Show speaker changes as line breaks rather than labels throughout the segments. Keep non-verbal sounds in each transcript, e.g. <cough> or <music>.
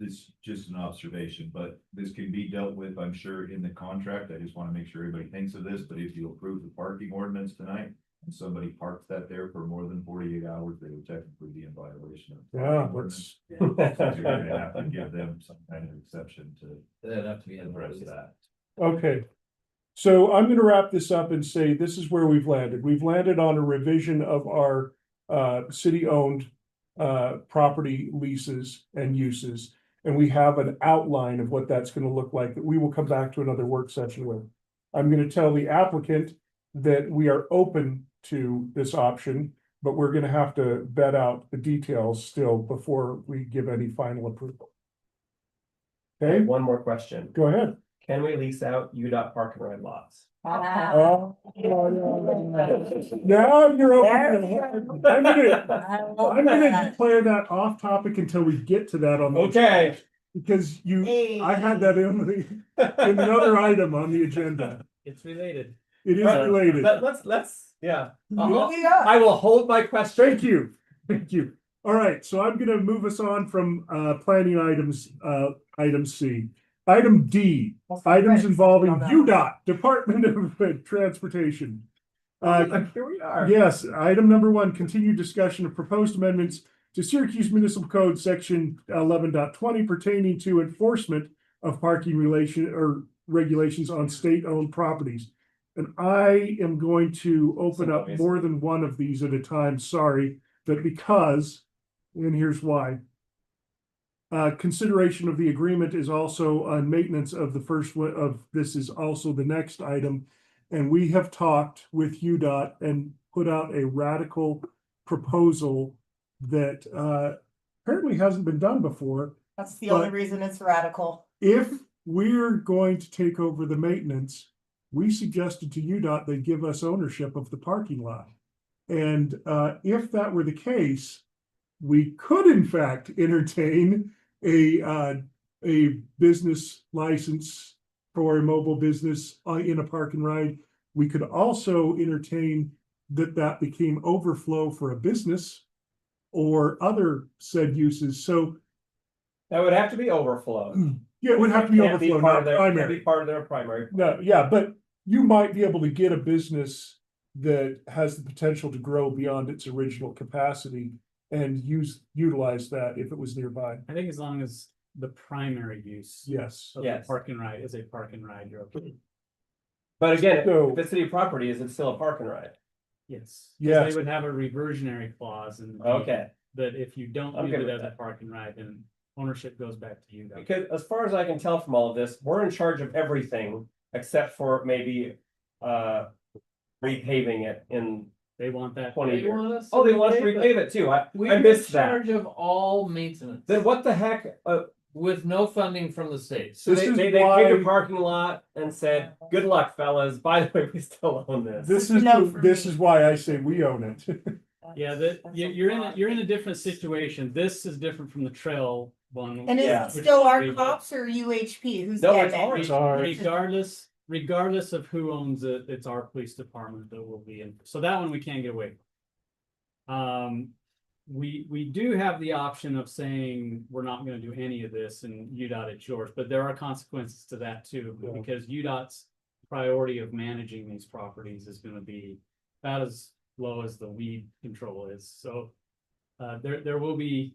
this is just an observation, but this can be dealt with, I'm sure, in the contract. I just want to make sure everybody thinks of this, but if you approve the parking ordinance tonight and somebody parks that there for more than forty-eight hours, they would technically be in violation of. the
Yeah,
parking
Ah, let's.
ordinance. So You're gonna have to give them some kind of exception to
That'd have to be in the
address
rest of that.
that.
Okay. So I'm gonna wrap this up and say this is where we've landed. We've landed on a revision of our uh city-owned uh property leases and uses. And we have an outline of what that's gonna look like that we will come back to another work session with. I'm gonna tell the applicant that we are open to this option, but we're gonna have to vet out the details still before we give any final approval. Okay,
One more question.
go ahead.
Can we lease out UDOT park and ride lots?
Wow.
Oh. Now you're open. I'm gonna,
I love
I'm gonna
that.
declare that off topic until we get to that on. the-
Okay.
Because you, I had that in the, in
<laughs>
another item on the agenda.
It's related.
It is
Right.
related.
Let, us let's, yeah.
Oh,
I'll-
yeah.
I will hold my question.
Thank you, thank you. All right, so I'm gonna move us on from uh planning items, uh item C. Item D, <laughs> items involving UDOT, Department of Transportation. Uh,
Here we are.
Yes, item number one, continued discussion of proposed amendments to Syracuse Municipal Code, section 11.20 pertaining to enforcement of parking relation or regulations on state-owned properties. And I am going to open up
Some ways.
more than one of these at a time, sorry, but because, and here's why. Uh, consideration of the agreement is also on maintenance of the first one of, this is also the next item. And we have talked with UDOT and put out a radical proposal that uh apparently hasn't been done before.
That's the only
But-
reason it's radical.
If we're going to take over the maintenance, we suggested to UDOT they give us ownership of the parking lot. And uh if that were the case, we could in fact entertain a uh a business license for a mobile business uh, in a park and ride. We could also entertain that that became overflow for a business or other said uses. So
That would have to be overflow.
yeah, it would have to be
Can't
overflow,
part
not
of their- can't
primary.
Be part of their primary.
No, yeah, but you might be able to get a business that has the potential to grow beyond its original capacity and use, utilize that if it was nearby.
I think as long as the primary use
Yes.
of the
Yes.
park and ride is a park and ride, you're okay.
But again,
So-
if it's city property, is it still a park and ride?
Yes. 'Cause
Yes.
They would have a reversionary clause and.
Okay,
That if you don't
I'm
use
good
it
with
as a
that.
park and ride, then ownership goes back to you. though.
because as far as I can tell from all of this, we're in charge of everything except for maybe uh repaving it in
They want that.
twenty
They
years.
want us
Oh, they want us to
repave it.
repave it too. I,
We're
I
in
missed that.
charge of all maintenance
Then what the heck, uh,
with no funding from the state.
So
This
they,
is
they, they paid
why-
a parking lot and said, good luck fellas, <laughs> by the way, we still own this.
This is,
No,
the-
for
this
me.
is why I say we own it.
Yeah,
That's-
that,
that's
you're,
a
you're in, a-
lot.
you're in a different situation. This is different from the trail one.
And is
Yeah.
it still our
Which-
cops or UHP? Who's
No,
getting
it's
it?
ours.
Sorry.
Regardless, regardless of who owns it, it's our police department that will be in, so that one we can't get away. from. Um, we, we do have the option of saying, we're not gonna do any of this and UDOT it's yours, but there are consequences to that too.
Yeah.
Because UDOT's priority of managing these properties is gonna be about as low as the weed control is, so. Uh, there, there will be,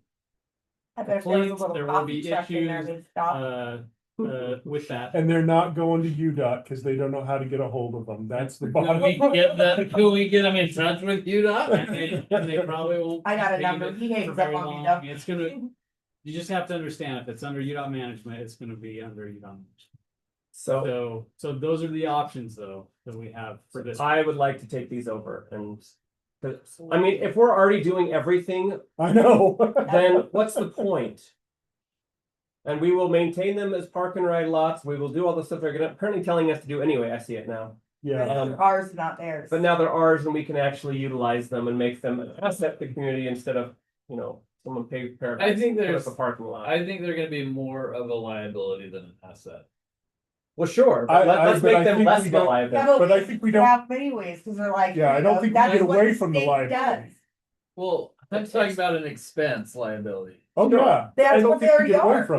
I bet if there was a
complaints,
little
there will
coffee
be
truck in there,
issues,
they'd stop.
uh, uh, with that.
And they're not going to UDOT because they don't know how to get a hold of them. That's the
Can we
bottom.
get
<laughs>
that, can we get them in touch with you, Doc?
And they, and they probably will.
I got a
continue
number.
to-
He hangs
for
up
very
on me
long.
now.
It's gonna, you just have to understand if it's under UDOT management, it's gonna be under UDOT. management.
So
So, so those are the options though, that we have for this.
I would like to take these over and, 'cause, I mean, if we're already doing everything,
<laughs> I know.
then what's the point? And we will maintain them as park and ride lots. We will do all the stuff they're gonna, apparently telling us to do anyway. I see it now.
Yeah.
um,
Ours, not theirs.
But now they're ours and we can actually utilize them and make them an asset to the community instead of, you know, someone pay.
I think there's-
A parking lot.
I think they're gonna be more of a liability than an asset.
Well, sure,
I-
but let-
I-
let's
but I
make them
think
less
we
of a
don't-
liability.
Yeah, but
but I
we
think we don't-
Have many ways, cause they're like.
Yeah, I
you
don't
know,
think we
that's
get
what
away from the
state
liability.
does.
Well, I'm talking about an expense liability.
Oh, yeah. I
That's
don't
what
think we
they
get away
are.
from